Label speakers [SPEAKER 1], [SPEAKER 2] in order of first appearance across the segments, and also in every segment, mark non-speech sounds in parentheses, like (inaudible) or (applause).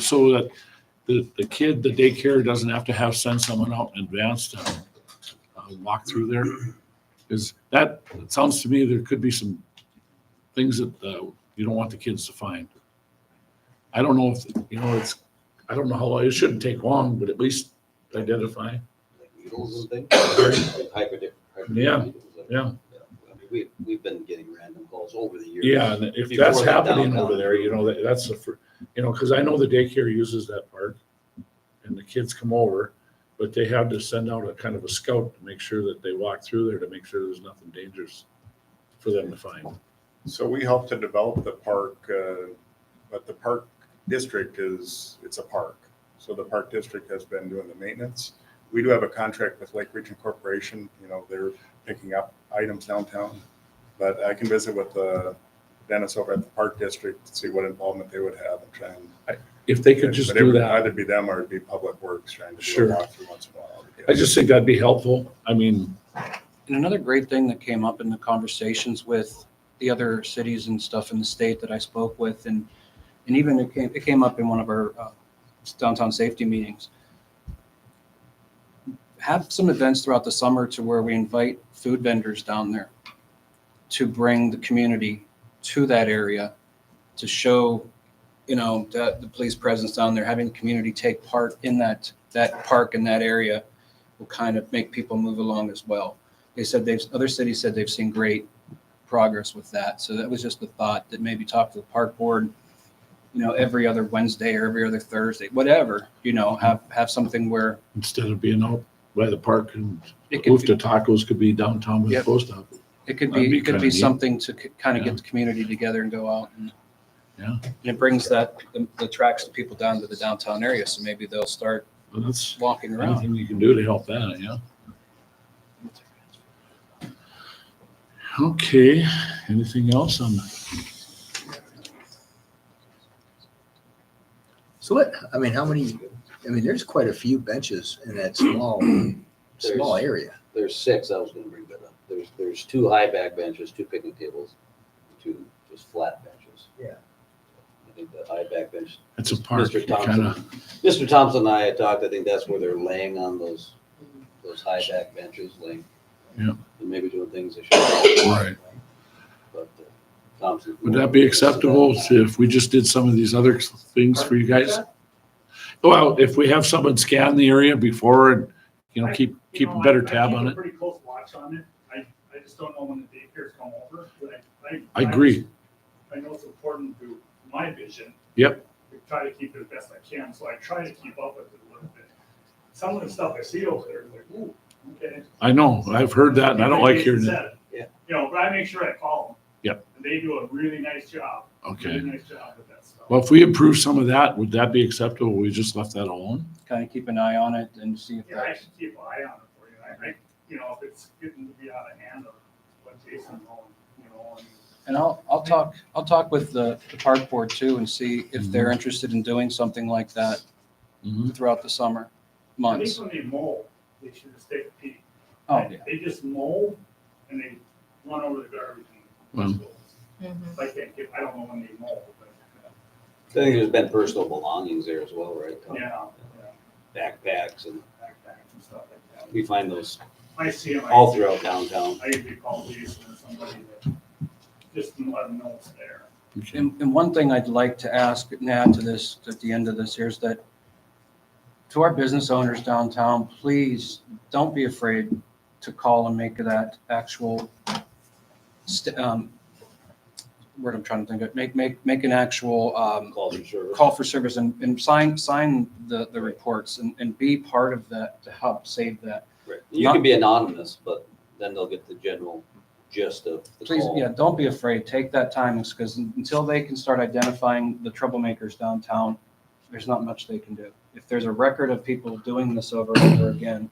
[SPEAKER 1] so that the, the kid, the daycare doesn't have to have, send someone out in advance to uh, walk through there? Is that, it sounds to me there could be some things that uh, you don't want the kids to find. I don't know if, you know, it's, I don't know how, long it shouldn't take long, but at least identify.
[SPEAKER 2] like needles and things. Hyperdic- hyperdic
[SPEAKER 1] Yeah,
[SPEAKER 2] needles and-
[SPEAKER 1] yeah.
[SPEAKER 2] I mean, we, we've been getting random calls over the years.
[SPEAKER 1] Yeah, and if
[SPEAKER 2] Before
[SPEAKER 1] that's
[SPEAKER 2] the
[SPEAKER 1] happening
[SPEAKER 2] downtown.
[SPEAKER 1] over there, you know, that, that's the, fir- you know, because I know the daycare uses that park. And the kids come over, but they have to send out a kind of a scout to make sure that they walk through there to make sure there's nothing dangerous for them to find.
[SPEAKER 3] So we helped to develop the park, uh, but the park district is, it's a park. So the park district has been doing the maintenance. We do have a contract with Lake Region Corporation, you know, they're picking up items downtown. But I can visit with uh, Dennis over at the park district, to see what involvement they would have and try and.
[SPEAKER 1] If they could just
[SPEAKER 3] But it
[SPEAKER 1] do
[SPEAKER 3] would
[SPEAKER 1] that,
[SPEAKER 3] Either be them or it'd be Public Works trying to do
[SPEAKER 1] Sure.
[SPEAKER 3] a walkthrough once in a while.
[SPEAKER 1] I just think that'd be helpful. I mean,
[SPEAKER 4] And another great thing that came up in the conversations with the other cities and stuff in the state that I spoke with, and and even it came it came up in one of our uh, downtown safety meetings. Have some events throughout the summer to where we invite food vendors down there to bring the community to that area to show, you know, that the police presence down there, having the community take part in that that park in that area will kind of make people move along as well they said they've, other cities said they've seen great progress with that. So that was just the thought that maybe talk to the park board, you know, every other Wednesday or every other Thursday, whatever, you know, have, have something where
[SPEAKER 1] instead of being out by the park and
[SPEAKER 4] it could,
[SPEAKER 1] move
[SPEAKER 4] be-
[SPEAKER 1] to tacos could be downtown with the
[SPEAKER 4] Yep.
[SPEAKER 1] post office.
[SPEAKER 4] it could
[SPEAKER 1] that'd
[SPEAKER 4] be,
[SPEAKER 1] be
[SPEAKER 4] it could
[SPEAKER 1] kinda
[SPEAKER 4] be
[SPEAKER 1] neat.
[SPEAKER 4] something to kind of
[SPEAKER 1] Yeah.
[SPEAKER 4] get the community together and go out and.
[SPEAKER 1] Yeah.
[SPEAKER 4] And it brings that, the- the tracks the people down to the downtown area. So maybe they'll start
[SPEAKER 1] But that's
[SPEAKER 4] walking around.
[SPEAKER 1] anything you can do to help that, yeah. Okay, anything else on that?
[SPEAKER 5] So what, I mean, how many, I mean, there's quite a few benches in that (clears throat) small, small
[SPEAKER 2] There's-
[SPEAKER 5] area.
[SPEAKER 2] There's six, I was gonna bring that up. There's, there's two high back benches, two picnic tables, two just flat benches.
[SPEAKER 5] Yeah.
[SPEAKER 2] I think the high back bench,
[SPEAKER 1] It's a park, you
[SPEAKER 2] Mr.
[SPEAKER 1] kinda,
[SPEAKER 2] Mr. Thompson and I had talked, I think that's where they're laying on those, those high back benches, laying.
[SPEAKER 1] Yeah.
[SPEAKER 2] And maybe doing things they should.
[SPEAKER 1] Right.
[SPEAKER 2] But uh, Thompson.
[SPEAKER 1] would that be acceptable to- if we just did some of these other things for you guys? Well, if we have someone scan the area before and, you know, keep,
[SPEAKER 6] You
[SPEAKER 1] keep
[SPEAKER 6] know,
[SPEAKER 1] a
[SPEAKER 6] I-
[SPEAKER 1] better
[SPEAKER 6] I
[SPEAKER 1] tab
[SPEAKER 6] keep
[SPEAKER 1] on
[SPEAKER 6] a
[SPEAKER 1] it.
[SPEAKER 6] Pretty close watch on it. I, I just don't know when the daycares come over. but
[SPEAKER 1] I agree,
[SPEAKER 6] I know it's important to my vision.
[SPEAKER 1] Yep.
[SPEAKER 6] To try to keep it as best I can, so I try to keep up with it a little bit. Some of the stuff I see over there, like, ooh, okay.
[SPEAKER 1] I know, I've heard that and I don't like hearing that.
[SPEAKER 2] Yeah.
[SPEAKER 6] You know, but I make sure I call them.
[SPEAKER 1] Yep.
[SPEAKER 6] And they do a really nice job, really
[SPEAKER 1] Okay,
[SPEAKER 6] nice job with that stuff.
[SPEAKER 1] well, if we improve some of that, would that be acceptable? We just left that alone?
[SPEAKER 4] Kind of keep an eye on it and see if
[SPEAKER 6] Yeah, I
[SPEAKER 4] that's,
[SPEAKER 6] should keep an eye on it for you. I, I, you know, if it's getting to be out of hand of what Jason, Nolan, you know, and
[SPEAKER 4] And I'll, I'll talk, I'll talk with the, the park board too and see if
[SPEAKER 1] Mm-hmm.
[SPEAKER 4] they're interested in doing something like that
[SPEAKER 1] Mhm.
[SPEAKER 4] throughout the summer
[SPEAKER 6] I think
[SPEAKER 4] months.
[SPEAKER 6] when they mow, they should just take a peek.
[SPEAKER 4] Oh, yeah.
[SPEAKER 6] They just mow and they run over the garbage. and
[SPEAKER 4] Mm-hmm.
[SPEAKER 6] I can't get, I don't know when they mow, but,
[SPEAKER 2] I think there's been personal belongings there as well, right? Tom?
[SPEAKER 6] yeah, yeah,
[SPEAKER 2] Backpacks and
[SPEAKER 6] backpacks and stuff like that.
[SPEAKER 2] we find those
[SPEAKER 6] I see them.
[SPEAKER 2] all throughout downtown.
[SPEAKER 6] I usually call Jason or somebody that, just to let them know it's there.
[SPEAKER 1] Okay.
[SPEAKER 4] And, and one thing I'd like to ask and add to this, at the end of this, here is that to our business owners downtown, please don't be afraid to call and make that actual st- um, word I'm trying to think of, make, make, make an actual, um,
[SPEAKER 2] Calls for service.
[SPEAKER 4] call for service and, and sign, sign the, the reports and, and be part of that to help save that.
[SPEAKER 2] Right. You can be anonymous, but then they'll get the general gist of the
[SPEAKER 4] Please,
[SPEAKER 2] call.
[SPEAKER 4] yeah, don't be afraid. Take that time because until they can start identifying the troublemakers downtown, there's not much they can do. If there's a record of people doing this over and over again,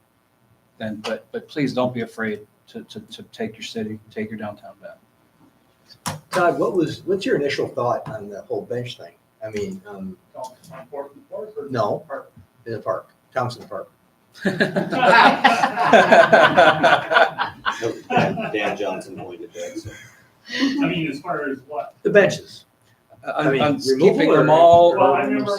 [SPEAKER 4] then, but, but please don't be afraid to, to, to take your city, take your downtown
[SPEAKER 5] (laughs)
[SPEAKER 4] back. (laughs)
[SPEAKER 5] Todd, what was, what's your initial thought on the whole bench thing? I mean, um,
[SPEAKER 6] Don't, important,
[SPEAKER 4] (laughs)
[SPEAKER 6] (laughs) important.
[SPEAKER 5] no, in the park, Thompson Park.
[SPEAKER 2] Dan (laughs) Dan Johnson pointed that, so.
[SPEAKER 6] I mean, as far as what,
[SPEAKER 5] The benches.
[SPEAKER 4] I'm, I'm
[SPEAKER 5] removal
[SPEAKER 4] Uh, keeping them
[SPEAKER 5] or-
[SPEAKER 4] all.
[SPEAKER 6] Well, I remember